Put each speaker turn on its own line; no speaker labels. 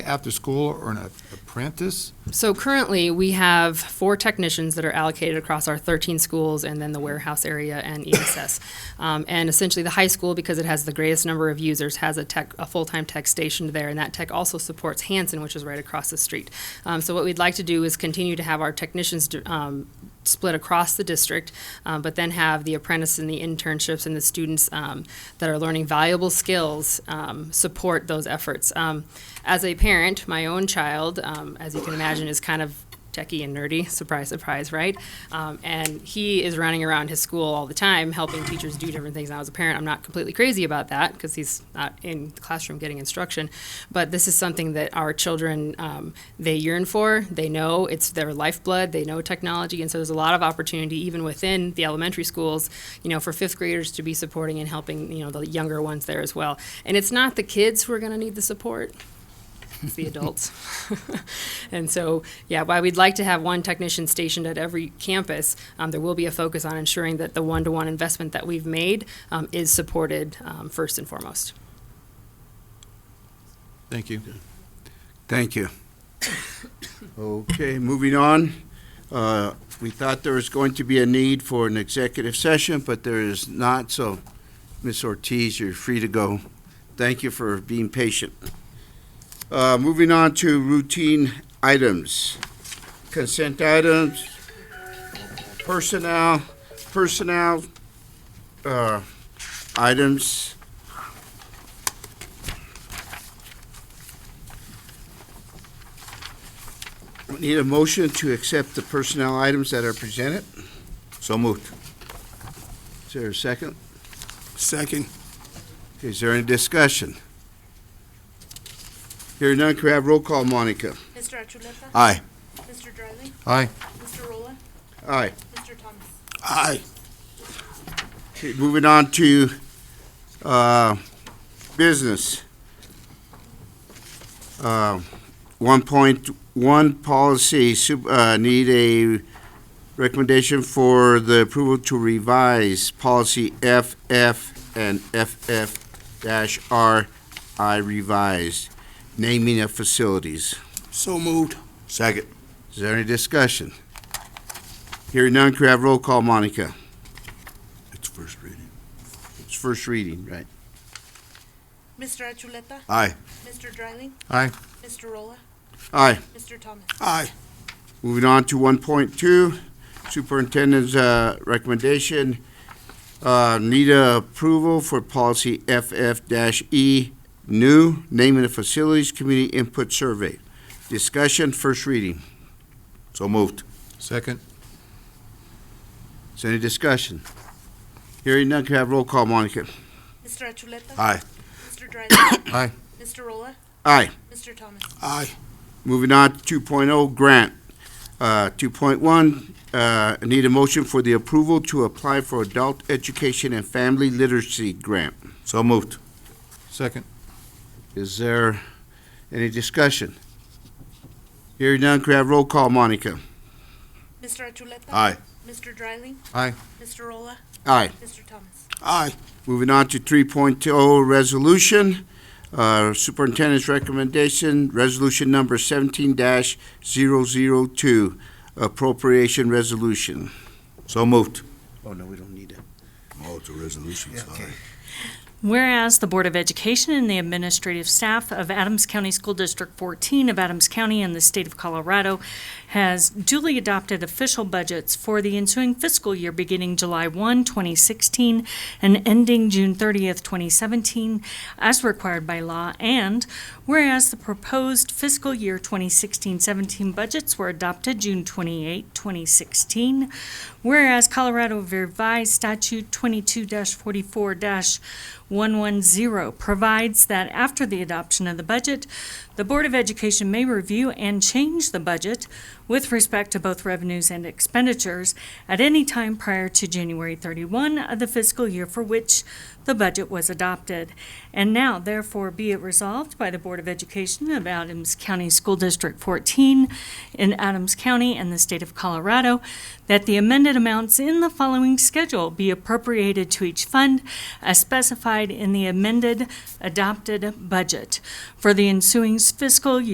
after school or an apprentice?
So currently, we have four technicians that are allocated across our 13 schools and then the warehouse area and ESS. Um, And essentially, the high school, because it has the greatest number of users, has a tech, a full-time tech stationed there, and that tech also supports Hanson, which is right across the street. Um, So what we'd like to do is continue to have our technicians um, split across the district, um, but then have the apprentice and the internships and the students um, that are learning valuable skills um, support those efforts. Um, As a parent, my own child, um, as you can imagine, is kind of techie and nerdy, surprise, surprise, right? Um, And he is running around his school all the time, helping teachers do different things. Now, as a parent, I'm not completely crazy about that, because he's not in the classroom getting instruction, but this is something that our children, um, they yearn for, they know, it's their lifeblood, they know technology, and so there's a lot of opportunity even within the elementary schools, you know, for fifth graders to be supporting and helping, you know, the younger ones there as well. And it's not the kids who are gonna need the support, it's the adults. And so, yeah, while we'd like to have one technician stationed at every campus, um, there will be a focus on ensuring that the one-to-one investment that we've made, um, is supported, um, first and foremost.
Thank you.
Thank you. Okay, moving on. Uh, We thought there was going to be a need for an executive session, but there is not, so Ms. Ortiz, you're free to go. Thank you for being patient. Uh, Moving on to routine items. Consent items, personnel, personnel uh, items. We Need a motion to accept the personnel items that are presented? So moved. Is there a second?
Second.
Is there any discussion? Hearing none, can we have roll call, Monica?
Mr. Achuleta?
Aye.
Mr. Dryling?
Aye.
Mr. Rolla?
Aye.
Mr. Thomas?
Aye.
Okay, moving on to, uh, business. Uh, one point one policy, sup- uh, need a recommendation for the approval to revise policy FF and FF dash RI revised, naming of facilities.
So moved.
Second. Is there any discussion? Hearing none, could we have roll call, Monica?
It's first reading.
It's first reading, right?
Mr. Achuleta?
Aye.
Mr. Dryling?
Aye.
Mr. Rolla?
Aye.
Mr. Thomas?
Aye.
Moving on to one point two, superintendent's, uh, recommendation. Uh, need a approval for policy FF E, new, naming of facilities, community input survey. Discussion, first reading. So moved.
Second?
Is there any discussion? Hearing none, can I have roll call, Monica?
Mr. Achuleta?
Aye.
Mr. Dryling?
Aye.
Mr. Rolla?
Aye.
Mr. Thomas?
Aye.
Moving on to 2.0 grant. Uh, 2.1, uh, need a motion for the approval to apply for adult education and family literacy grant. So moved.
Second?
Is there any discussion? Hearing none, could I have roll call, Monica?
Mr. Achuleta?
Aye.
Mr. Dryling?
Aye.
Mr. Rolla?
Aye.
Mr. Thomas?
Aye.
Moving on to 3.0 resolution, uh, superintendent's recommendation, resolution number 17-002, appropriation resolution. So moved. Oh, no, we don't need it.
Oh, it's a resolution, sorry.
Whereas the Board of Education and the administrative staff of Adams County School District 14 of Adams County in the state of Colorado has duly adopted official budgets for the ensuing fiscal year beginning July 1, 2016, and ending June 30th, 2017, as required by law, and whereas the proposed fiscal year 2016-17 budgets were adopted June 28, 2016, whereas Colorado Revised Statute 22-44- 110 provides that after the adoption of the budget, the Board of Education may review and change the budget with respect to both revenues and expenditures at any time prior to January 31 of the fiscal year for which the budget was adopted. And now, therefore, be it resolved by the Board of Education of Adams County School District 14 in Adams County and the state of Colorado that the amended amounts in the following schedule be appropriated to each fund as specified in the amended adopted budget for the ensuing fiscal year.